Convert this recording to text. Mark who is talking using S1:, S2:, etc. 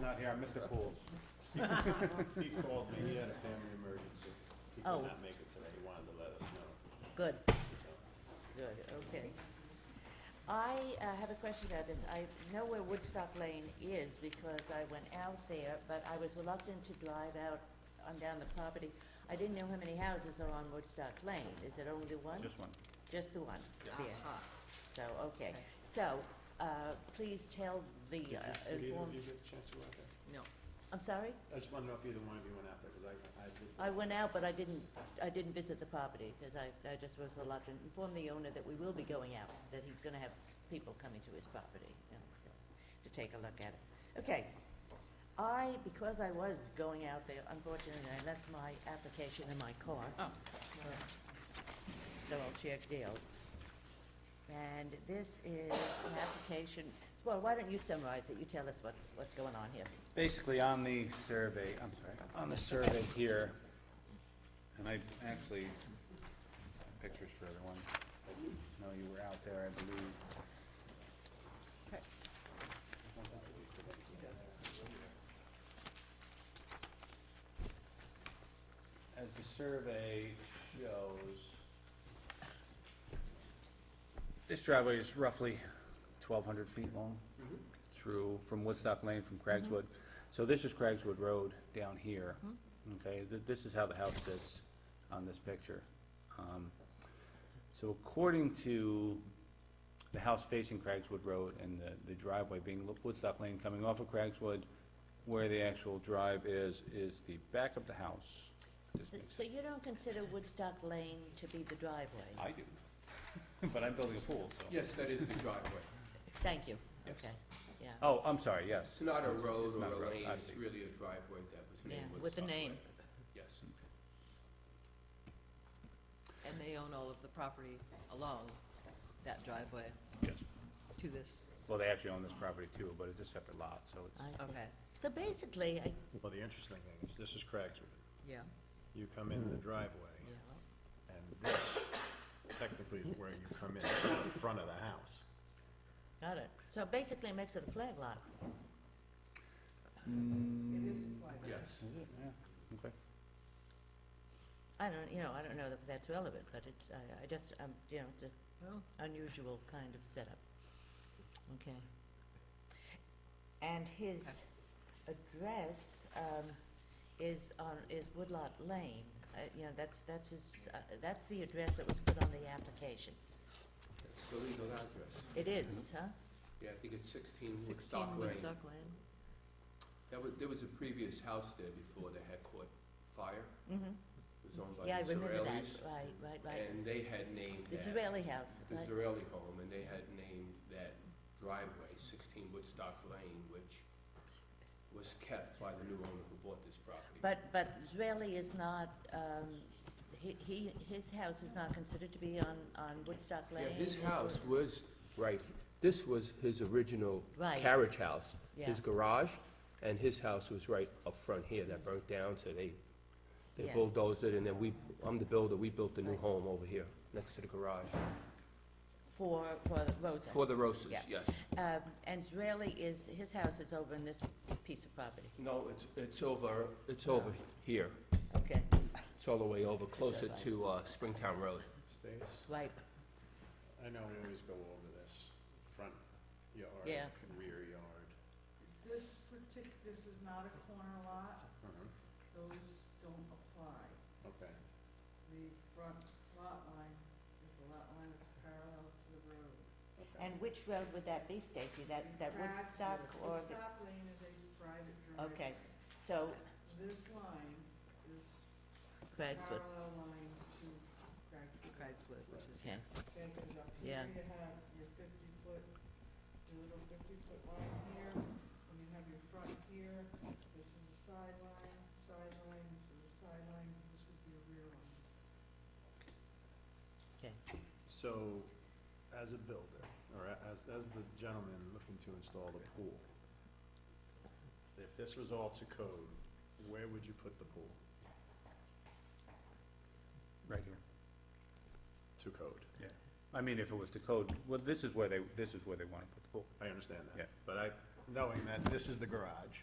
S1: not here, I missed the polls. He called me, he had a family emergency. He could
S2: Oh.
S1: not make it today, he wanted to let us know.
S2: Good,
S1: so.
S2: good, okay. I uh, have a question about this. I know where Woodstock Lane is because I went out there, but I was reluctant to drive out on down the property. I didn't know how many houses are on Woodstock Lane. Is it only one?
S3: Just one.
S2: Just the one? Yeah.
S4: Aha.
S2: So, okay.
S4: Okay.
S2: So, uh, please tell the,
S1: Did you-
S2: uh,
S1: Did either
S2: inform-
S1: of you get a chance to go out there?
S4: No,
S2: I'm sorry?
S1: I just wanted to know if either one of you went out there, because I, I did.
S2: I went out, but I didn't, I didn't visit the property, because I, I just was reluctant. Inform the owner that we will be going out, that he's gonna have people coming to his property, you know, so, to take a look at it. Okay. I, because I was going out there, unfortunately, I left my application in my car.
S4: oh,
S2: So I'll check deals. And this is an application, well, why don't you summarize it? You tell us what's, what's going on here.
S3: Basically, on the survey, I'm sorry, on the survey here, and I actually, pictures for everyone. No, you were out there, I believe.
S4: okay.
S3: As the survey shows, this driveway is roughly twelve hundred feet long through, from Woodstock Lane, from Craigswood. So this is Craigswood Road down here, okay? Th- This is how the house sits on this picture. Um, So according to the house facing Craigswood Road and the- the driveway being Lo- Woodstock Lane coming off of Craigswood, where the actual drive is, is the back of the house. This
S2: So-
S3: makes
S2: So you don't consider Woodstock Lane to be the driveway?
S3: I do, but I'm building a pool, so.
S5: Yes, that is the driveway.
S2: Thank you.
S5: Yes.
S2: Okay, yeah.
S3: Oh, I'm sorry, yes.
S5: It's not a
S3: It's-
S5: road
S3: it's not
S5: or a lane,
S3: I
S5: it's
S3: see.
S5: really a driveway that was named
S2: Yeah,
S5: Woodstock.
S4: with a name.
S5: Way. Yes.
S4: And they own all of the property along that driveway
S3: Yes.
S4: to this,
S3: Well, they actually own this property too, but it's a separate lot, so
S2: I
S3: it's,
S2: see.
S4: okay,
S2: So basically, I,
S1: Well, the interesting thing is, this is Craigswood.
S4: yeah,
S1: You come in the driveway,
S4: yeah.
S1: and this technically is where you come in, from the front of the house.
S2: got it. So basically it makes it a flag lot.
S5: Yes.
S3: yeah, okay.
S2: I don't, you know, I don't know that that's relevant, but it's, I, I just, um, you know, it's a
S4: Well,
S2: unusual kind of setup. Okay. And his address, um, is on, is Woodlot Lane. Uh, you know, that's, that's his, uh, that's the address that was put on the application.
S5: It's the legal address.
S2: It is, huh?
S5: Yeah, I think it's sixteen
S4: sixteen
S5: Woodstock Lane.
S4: Woodstock Lane,
S5: That was, there was a previous house there before the had caught fire.
S2: Mm-hmm.
S5: It was owned by
S2: Yeah, I
S5: the
S2: remember that.
S5: Israelis.
S2: Right, right, right.
S5: And they had named
S2: The
S5: that,
S2: Israeli house,
S5: the
S2: right?
S5: Zarelli home, and they had named that driveway sixteen Woodstock Lane, which was kept by the new owner who bought this property.
S2: But, but Israeli is not, um, he, he, his house is not considered to be on, on Woodstock Lane?
S5: Yeah, his house was, right, this was his original
S2: Right.
S5: carriage house. His
S2: Yeah.
S5: garage, and his house was right up front here that burnt down, so they, they
S2: Yeah.
S5: bulldozed it, and then we, I'm the builder, we built the new home over here, next to the garage,
S2: For, for Rosa?
S5: for the Roses,
S2: Yeah.
S5: yes.
S2: Um, and Israeli is, his house is over in this piece of property,
S5: No, it's, it's over, it's over here,
S2: okay,
S5: it's all the way over, closer to, uh, Springtown Road.
S1: Stays.
S2: right,
S1: I know we always go over this, front yard
S2: Yeah.
S1: and rear yard.
S6: This partic, this is not a corner lot, those don't apply.
S1: Uh-huh. Okay,
S6: The front lot line is the lot line that's parallel to the road.
S2: and which road would that be, Stacy, that, that Woodstock
S6: Craftswood-
S2: or, the-
S6: Woodstock Lane is a private driveway.
S2: okay, so,
S6: This line is
S2: Craigswood,
S6: parallel line to Craigswood.
S4: Craigswood, which is
S2: okay,
S6: Okay, 'cause up
S2: Yeah.
S6: here you have your fifty foot, your little fifty foot line here, and you have your front here, this is a sideline, sideline, this is a sideline, this would be a rear line.
S1: so as a builder, or a- as, as the gentleman looking to install the pool, if this was all to code, where would you put the pool
S3: right here.
S1: to code?
S3: I mean, if it was to code, well, this is where they, this is where they want to put the pool.
S1: I understand that.
S3: Yeah.
S1: But I, knowing that this is the garage,